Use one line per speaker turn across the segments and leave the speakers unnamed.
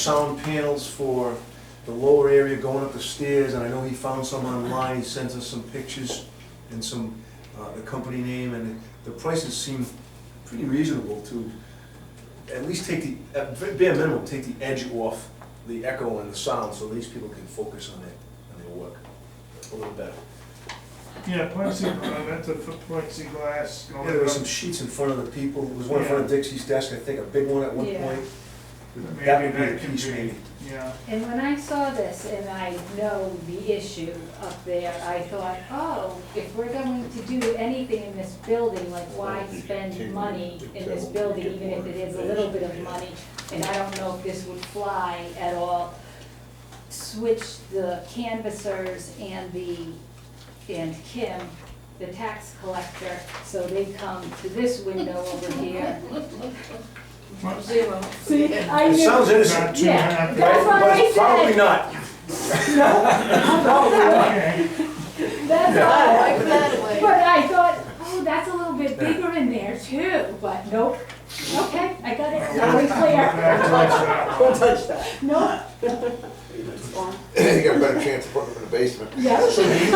sound panels for the lower area going up the stairs, and I know he found some online, he sends us some pictures and some, uh, the company name, and the prices seem pretty reasonable to at least take the, at v- bare minimum, take the edge off the echo and the sound, so these people can focus on their, on their work a little better.
Yeah, plexi, uh, I meant to put plexiglass
Yeah,
going
there were some
up.
sheets in front of the people, there was one in front of Dixie's desk, I think, a big one at one
Yeah.
point.
Maybe
That would
that
be a
can
piece
be-
maybe.
Yeah,
And when I saw this, and I know the issue up there, I thought, oh, if we're going to do anything in this building, like why spend money in this building, even if it is a little bit of money? And I don't know if this would fly at all. Switch the canvassers and the, and Kim, the tax collector, so they come to this window over here.
Zero.
See, I
It sounds
knew,
innocent.
not too
Yeah,
happy.
That's what I
But Probably
said.
not.
Okay,
that's all.
I like that way.
But I thought, oh, that's a little bit bigger in there too, but nope. Okay, I got it, now we're clear.
back to us, uh,
Nope,
You got a better chance of putting them in the basement.
So do
yes.
you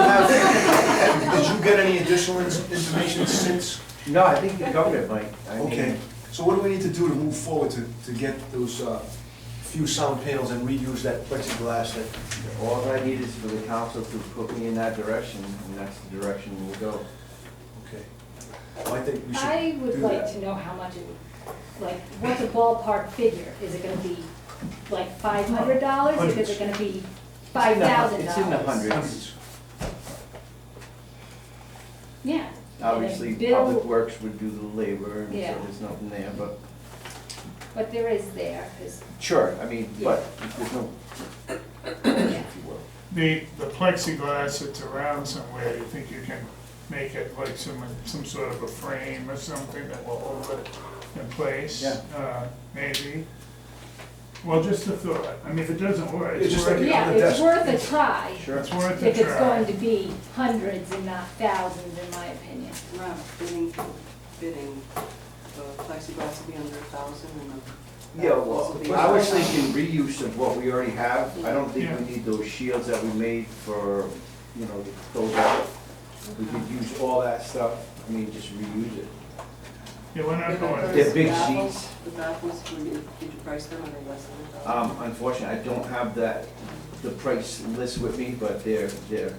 have, did you get any additional in- information since?
No, I think you covered it, Mike. I mean,
Okay, so what do we need to do to move forward to, to get those, uh, few sound panels and reuse that plexiglass that?
All I need is for the council to put me in that direction, and that's the direction we'll go.
Okay. Well, I think we should.
I would
do
like
that.
to know how much it would, like, what's a ballpark figure? Is it gonna be like five hundred dollars? Is
Hundreds.
it gonna be five thousand dollars?
It's in the hundreds.
Hundreds.
Yeah.
Obviously,
And then bill-
Public Works would do the labor, and so
Yeah.
there's nothing there, but,
But there is there, 'cause-
sure, I mean, but there's no,
yeah.
if you will.
The, the plexiglass that's around somewhere, you think you can make it like some, some sort of a frame or something that will hold it in place?
Yeah.
Uh, maybe. Well, just a thought, I mean, if it doesn't work,
It's
it's
just
worth,
like-
Yeah,
on the
it's
desk.
worth a try,
Sure.
it's worth a
if it's
try.
going to be hundreds and not thousands, in my opinion.
Rob, bidding, bidding, the plexiglass will be under a thousand and the.
Yeah, well, I was thinking reuse of what we already have. I don't think
Yeah.
we need those shields that we made for, you know, those out. We could
Uh-huh.
use all that stuff, I mean, just reuse it.
Yeah, we're not going,
They're big
baffles-
sheets.
The baffles, were you- did you price them under less than a thousand?
Um, unfortunately, I don't have that, the price list with me, but they're, they're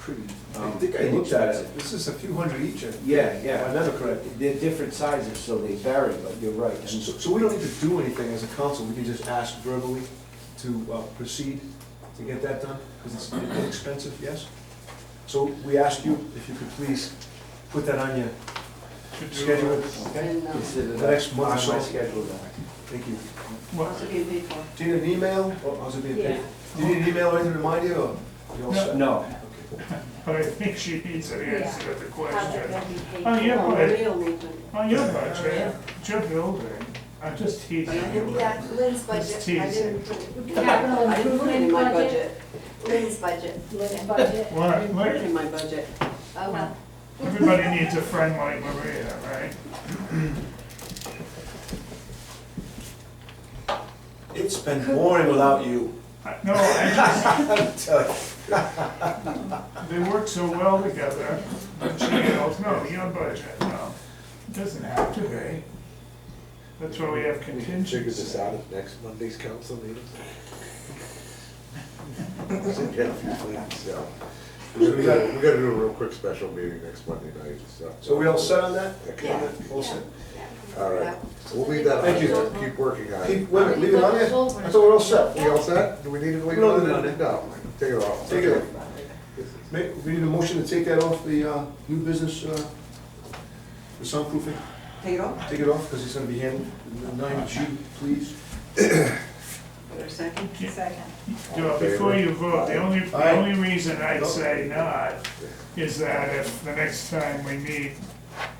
pretty,
I
um,
think I looked at it,
inexpensive.
this is a few hundred each, if
Yeah,
I
yeah,
remember correctly.
they're different sizes, so they vary, but you're right.
So, so we don't need to do anything as a council, we can just ask verbally to uh, proceed to get that done, because it's inexpensive, yes? So we ask you if you could please put that on your
to
schedule,
do,
okay?
And, um,
Consider
The next
that
month or
on my
so.
schedule then.
Thank you.
what,
How's it being paid for?
Do you need an email, or how's it being paid?
Yeah.
Do you need an email or anything to remind you, or? you all set?
No,
Okay.
but I think she needs an answer to the
How's it
question.
gonna be paid?
Oh, yeah,
Well,
but-
Maria will need to.
On your budget, it's your building, I'm just teasing you.
Yeah, Lynn's budget, I didn't put
Capital
I didn't put it in my
improvement
budget.
budget.
Lynn's budget.
Limit budget.
I
What,
didn't put it
like,
in my budget.
Oh, well.
everybody needs a friend like Maria, right?
It's been boring without you.
I- No, I just,
I'm telling you.
they work so well together, the channels, no, your budget, no, it doesn't have to be. That's why we have
We can figure
contingency.
this out at next Monday's council meeting. So, We gotta, we gotta do a real quick special meeting next Monday night, so.
So we all set on that?
Yeah.
All set.
All right.
We'll leave that
Thank you.
on, keep working on
Keep-
it.
Wait, a minute, leave it on there? I thought we're all set.
We all set? Do we need to leave it
No,
on?
no, no.
No, take it off.
Take it off. May- We need a motion to take that off the uh, new business, uh, the soundproofing?
Take it off,
Take it off, because it's gonna be handled. Nine G, please.
for a second.
Second.
Well, Before you vote, the only, the
Aye.
only reason I'd say not is that if the next time we meet,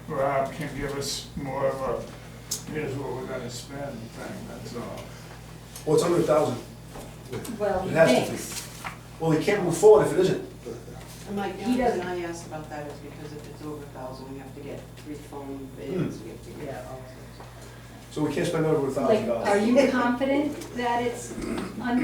Rob can give us more of a, here's what we're gonna spend thing, that's all.
Well, it's under a thousand.
Well,
It has to be.
thanks.
Well, he can't move forward if it isn't.
And Mike, the
He
only reason
doesn't-
I asked about that is because if it's over a thousand, we have to get three phone bids, we have to get all sorts of.
So we can't spend over a thousand
Like,
dollars.
are you confident that it's under